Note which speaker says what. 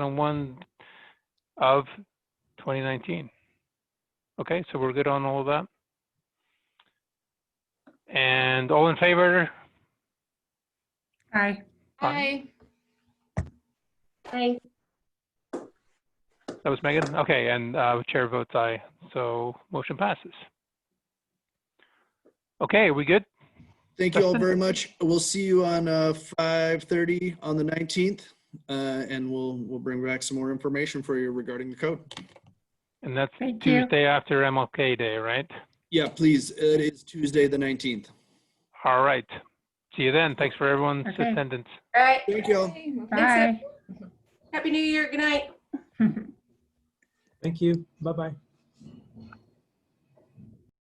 Speaker 1: on one of twenty nineteen. Okay, so we're good on all of that? And all in favor?
Speaker 2: Aye.
Speaker 1: Aye.
Speaker 2: Aye.
Speaker 1: That was Megan? Okay, and uh, chair votes aye, so motion passes. Okay, we good?
Speaker 3: Thank you all very much. We'll see you on uh, 5:30 on the 19th, uh, and we'll, we'll bring back some more information for you regarding the code.
Speaker 1: And that's
Speaker 2: Thank you.
Speaker 1: Tuesday after MLK Day, right?
Speaker 3: Yeah, please, it is Tuesday, the 19th.
Speaker 1: All right. See you then. Thanks for everyone's
Speaker 2: Okay.
Speaker 1: attendance.
Speaker 4: All right.
Speaker 3: Thank you all.
Speaker 2: Bye.
Speaker 4: Happy New Year. Good night.
Speaker 5: Thank you. Bye-bye.